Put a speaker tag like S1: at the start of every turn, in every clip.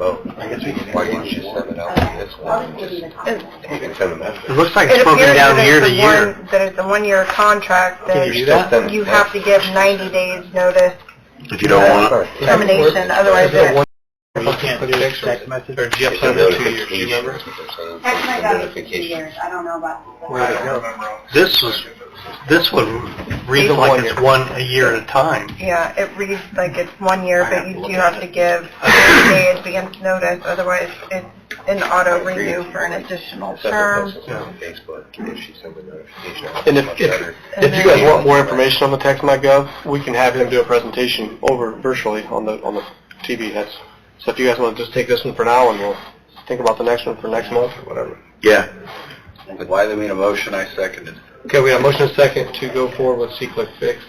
S1: I guess we can.
S2: Why didn't you send it out
S3: Uh,
S2: to this one?
S4: It
S2: You can send a message.
S1: It looks like
S4: it
S1: it's broken
S4: appears
S1: down
S4: that
S1: year
S4: it's
S1: to
S4: the
S1: year.
S4: one, that it's a one-year contract,
S2: Can
S4: that
S2: you still send a
S4: you have to
S2: message?
S4: give 90 days notice
S1: If you don't want it.
S4: termination, otherwise
S1: that
S4: it,
S1: You can't do text message. Or do you
S2: It's a notification.
S3: Text my
S2: It's a
S3: dad in two
S2: notification.
S3: years, I don't know about.
S1: Right. This was, this would read
S2: It's
S1: like
S2: one
S1: it's
S2: year.
S1: one a year at a time.
S4: yeah, it reads like it's one year, but you do have to give 90
S1: I
S4: day advance notice, otherwise it's an auto renew for an additional
S2: Send a
S4: term.
S2: message on Facebook if she sends a notification.
S5: And if-
S2: Much
S5: if-
S2: better.
S5: If you guys want more information on the text.gov, we can have him do a presentation over virtually on the, on the TV. That's, so if you guys want to just take this one for now and we'll think about the next one for next month.
S2: Whatever.
S1: Yeah.
S2: Why they made a motion, I seconded.
S5: Okay, we got a motion and a second to go forward with C-Click Fix.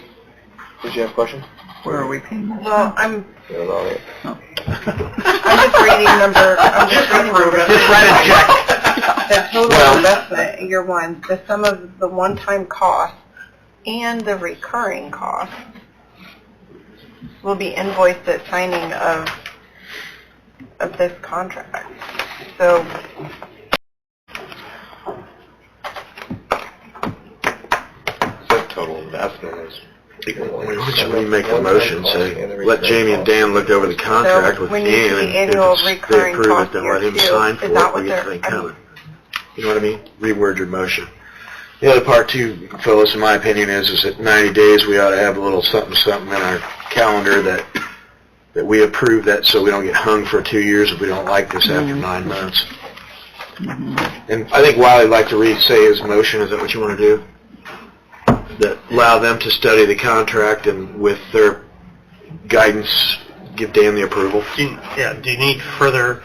S5: Did you have a question?
S4: Where are we paying? Well, I'm,
S5: Well,
S4: I'm just reading number, I'm just reading number
S1: Just write a check.
S4: the total
S1: Well-
S4: investment in year one, the sum of the one-time cost and the recurring cost will be invoiced at signing of, of this contract. So
S2: Said total investment is.
S6: We make a motion, so let Jamie and Dan look over the contract with
S4: So we need
S6: Ian,
S4: the
S6: and
S4: annual
S6: if it's- they
S4: recurring
S6: approve
S4: cost
S6: it, then let him
S4: here, too.
S6: sign
S4: Is
S6: for
S4: that
S6: it, we
S4: what they're-
S6: get the thing
S4: I mean-
S6: coming. You know what I mean? Reword your motion. The other part too, Phyllis, in my opinion, is, is that ninety days, we ought to have a little something, something in our calendar that, that we approve that, so we don't get hung for two years if we don't like this after nine months. And I think Wiley'd like to re-say his motion, is that what you want to do? That allow them to study the contract and with their guidance, give Dan the approval?
S1: Do you- Yeah, do you need further,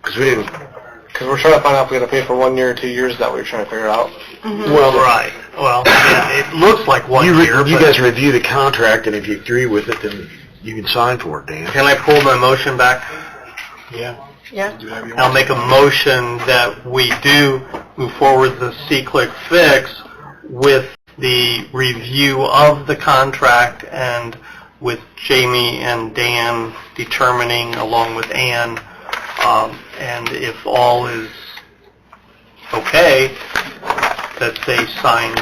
S6: Because we didn't,
S5: Because we're trying to find out if we got to pay for one year or two years, that we're trying to figure out.
S1: well, right, well, yeah, it looks like one
S6: you,
S1: year,
S6: re- you
S1: but-
S6: guys review the contract, and if you agree with it, then you can sign for it, Dan.
S1: Can I pull my motion back? Yeah.
S4: Yeah.
S1: I'll make a motion that we do move forward the C-Click fix with the review of the contract and with Jamie and Dan determining along with Ann, um, and if all is okay, that they sign.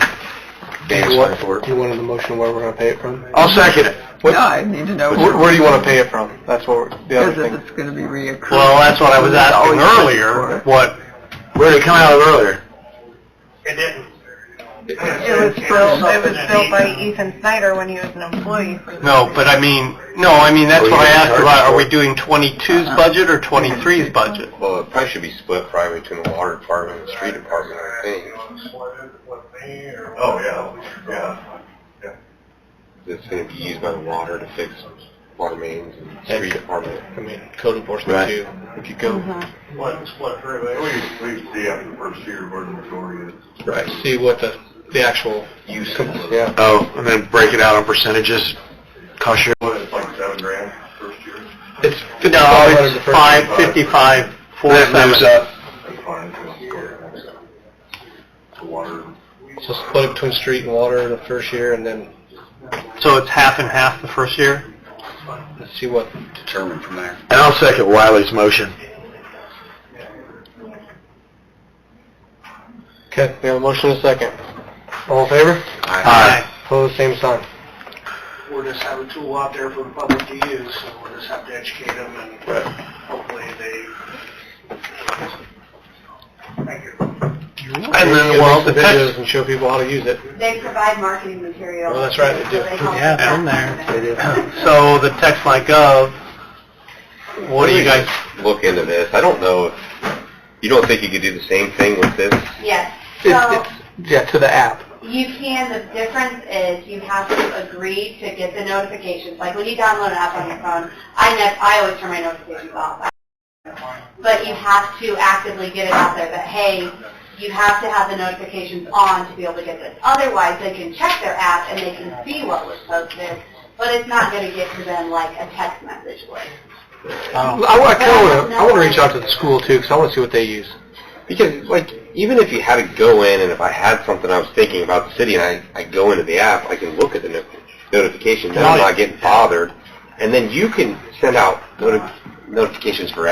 S6: Dan
S5: You
S6: signed
S5: want-
S6: for it.
S5: You wanted the motion where we're going to pay it from?
S2: Oh,
S6: I'll second it.
S7: I need to know
S5: Where, where do you want to pay it from? That's what, we're- the other
S7: because if
S5: thing.
S7: it's going to be reoccurring.
S1: Well, that's what I was asking
S7: Always ask for
S1: earlier,
S7: it.
S1: what...
S6: Where did it come out of earlier?
S1: It didn't.
S4: it was built, it was built by Ethan Snyder when he was an employee. for the-
S1: No, but I mean, no, I mean, that's
S6: Oh,
S1: what I
S6: you're
S1: asked
S6: charged
S1: about, are
S6: for
S1: we
S6: it.
S1: doing 22's budget or 23's budget?
S2: Well, it probably should be split probably between the water department and the street department, I think.
S8: Oh, yeah, yeah.
S2: It's gonna be used by the water to fix water mains and street department.
S5: I mean, code enforcement
S6: Right.
S5: too. If you go
S8: What, what, we, we see after the first year where the majority is.
S5: Right. See what the, the actual,
S2: Use.
S5: yeah.
S6: Oh, and then break it out on percentages, cost share.
S8: What, it's like seven grand first year?
S5: It's
S1: No,
S5: 500 the
S1: it's
S5: first
S1: five,
S5: year.
S1: fifty-five, four,
S6: That moves
S1: seven.
S6: up.
S8: That's fine, because the water.
S5: So split it between street and water the first year and then
S1: So it's half and half the first year?
S5: let's see what,
S2: Determined from there.
S6: And I'll second Wiley's motion.
S5: okay, we have a motion and a second. All in favor?
S6: Aye.
S5: Pose same sign.
S9: we're just have a tool out there for the public to use, so we'll just have to educate them and hopefully they. Thank you.
S1: And then, well, the
S5: Make some videos
S1: text,
S5: and show people how to use it.
S3: They provide marketing material.
S5: Well, that's right, they do.
S3: So help
S1: Yeah,
S3: us out.
S1: from there. so the text my gov, what do you guys,
S2: Look into this. I don't know if, you don't think you could do the same thing with this?
S3: Yes,
S5: It's-
S3: so
S5: it's- Yeah, to the app.
S3: you can, the difference is you have to agree to get the notifications, like when you download an app on your phone, I nev I always turn my notifications off. But you have to actively get it out there that, hey, you have to have the notifications on to be able to get this. Otherwise, they can check their app and they can see what was posted, but it's not going to get to them like a text message would.
S5: Um, I want, I kinda wanna, I wanna reach out to the school too, because I wanna see what they use.
S2: Because, like, even if you had to go in, and if I had something I was thinking about the city, and I, I go into the app, I can look at the no- notifications, and I'm not getting bothered. And then you can send out noti- notifications for